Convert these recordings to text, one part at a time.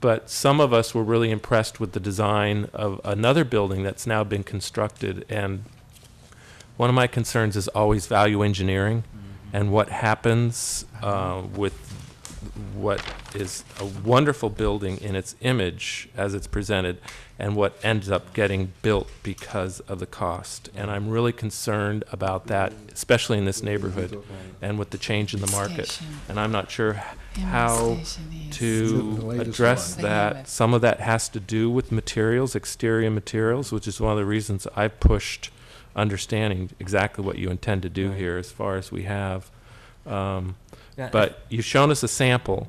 but some of us were really impressed with the design of another building that's now been constructed. And one of my concerns is always value engineering and what happens uh, with what is a wonderful building in its image as it's presented and what ends up getting built because of the cost. And I'm really concerned about that, especially in this neighborhood and with the change in the market. Station. And I'm not sure Amherst how Station East. Is it the to latest address one? They have that. it. Some of that has to do with materials, exterior materials, which is one of the reasons I pushed understanding exactly what you intend to do Right. here as far as we have. Um, Yeah, but you've shown us a sample,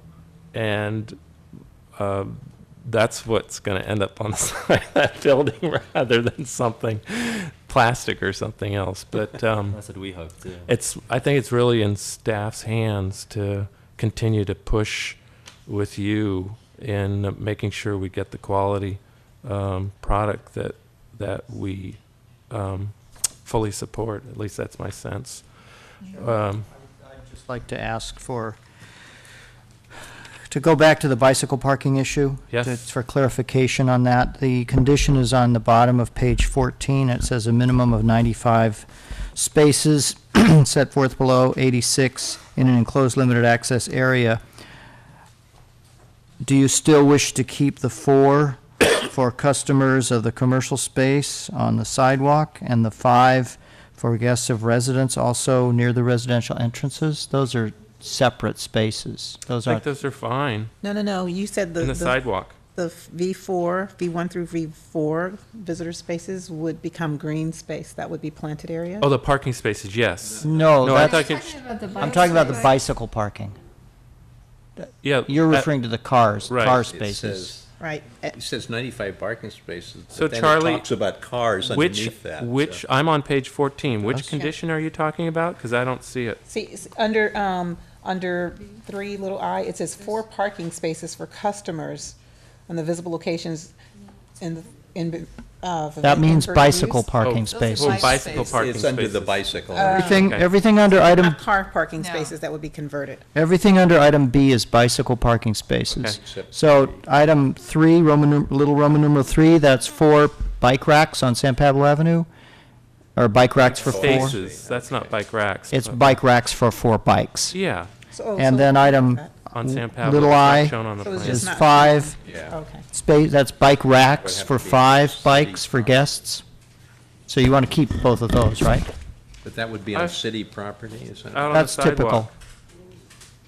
and uh, that's what's going to end up on the side of that building rather than something plastic or something else. But um, That's what we hope too. it's I think it's really in staff's hands to continue to push with you in making sure we get the quality um, product that that we um, fully support. At least that's my sense. uh, Um, just like to ask for, to go back to the bicycle parking issue. Yes. to- For clarification on that, the condition is on the bottom of page 14. It says a minimum of 95 spaces set forth below, 86 in an enclosed limited access area. Do you still wish to keep the four for customers of the commercial space on the sidewalk and the five for guests of residents also near the residential entrances? Those are separate spaces. Those I think aren't, those are fine No, no, no, you said the, in the the sidewalk. the V4, V1 through V4 visitor spaces would become green space, that would be planted area? Oh, the parking spaces, yes. no, No, I that's, thought, you- I'm talking about the bicycle parking. yeah. You're uh, referring to the cars, right. car It It spaces. says- Right, eh, It says 95 parking spaces, So, but then it Charlie, talks about cars Which, underneath that. so- which, I'm on page 14. Which Yes. condition are you talking about? Because I don't see it. see, it's under, um, under three little i, it says four parking spaces for customers on the visible locations in, the in, uh. for That vehicle means for bicycle use. parking Oh, spaces. Oh, bicycle parking It's under the spaces. bicycle. Everything, okay. everything under item, Not car parking No. spaces that would be converted. everything under item B is bicycle parking spaces. Okay. Except- So item three, Roman, num- little Roman numeral three, that's four bike racks on San Pablo Avenue, or bike racks for four. Spaces, that's not bike racks. It's but- bike racks for four bikes. Yeah, So- oh, And so- then item on San Pablo. Little it's not I Shown on the So it's plan. just- is not- five Yeah. Okay, space, that's bike racks for have to be five city bikes for guests. So you want to keep both of those, right? But that would be I- on city property, isn't Out it? on the That's typical. sidewalk.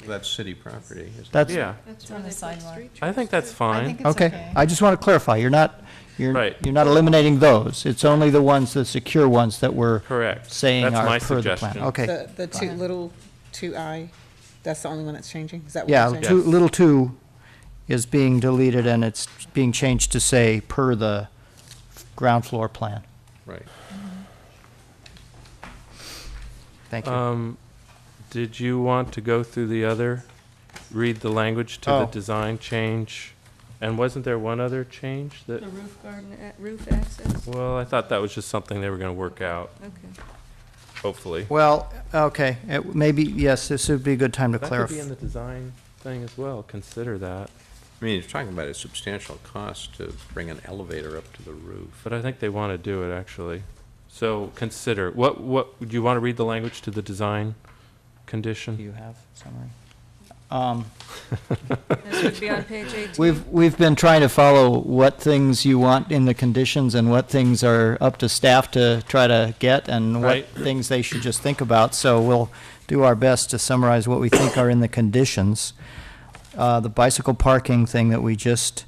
That's city property, isn't it? That's, Yeah, It's on the sidewalk. I think that's fine. okay. I just want to clarify, you're not, you're, Right. you're not eliminating those. It's only the ones, the secure ones that we're Correct. saying That's my are per the plan. suggestion. Okay. the, the two little, two i, that's the only one that's changing, is that what you're Yeah, saying? two, Yes. little two is being deleted and it's being changed to say per the ground floor plan. Right. Thank you. Um, Did you want to go through the other, read the language to the Oh. design change? And wasn't there one other change that, The roof garden, a- roof access, well, I thought that was just something they were going to work out, okay. hopefully. Well, okay, it- maybe, yes, this would be a good time to That could be in clarify. the design thing as well, consider that. I mean, you're talking about a substantial cost to bring an elevator up to the roof. But I think they want to do it, actually. So consider, what, what, do you want to read the language to the design Do condition? you have summary? Um, This would be on page 18. We've, we've been trying to follow what things you want in the conditions and what things are up to staff to try to get and what Right. things they should just think about. So we'll do our best to summarize what we think are in the conditions. Uh, The bicycle parking thing that we just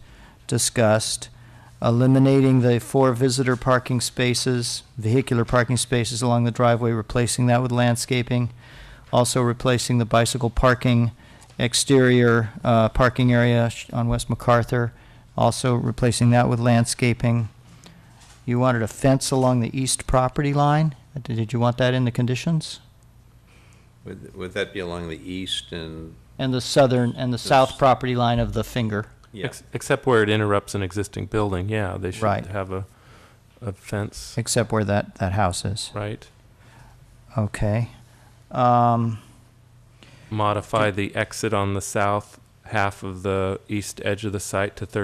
discussed, eliminating the four visitor parking spaces, vehicular parking spaces along the driveway, replacing that with landscaping, also replacing the bicycle parking exterior uh, parking area sh- on West MacArthur, also replacing that with landscaping. You wanted a fence along the east property line? Uh, Did did you want that in the conditions? Would, would that be along the east and, And the southern, and the south property line of the finger? yeah, Ex- Except where it interrupts an existing building, yeah, they should Right. have a, a fence, Except where that, that house is. right? Okay. Um, Modify the exit on the south half of the east edge of the site to 30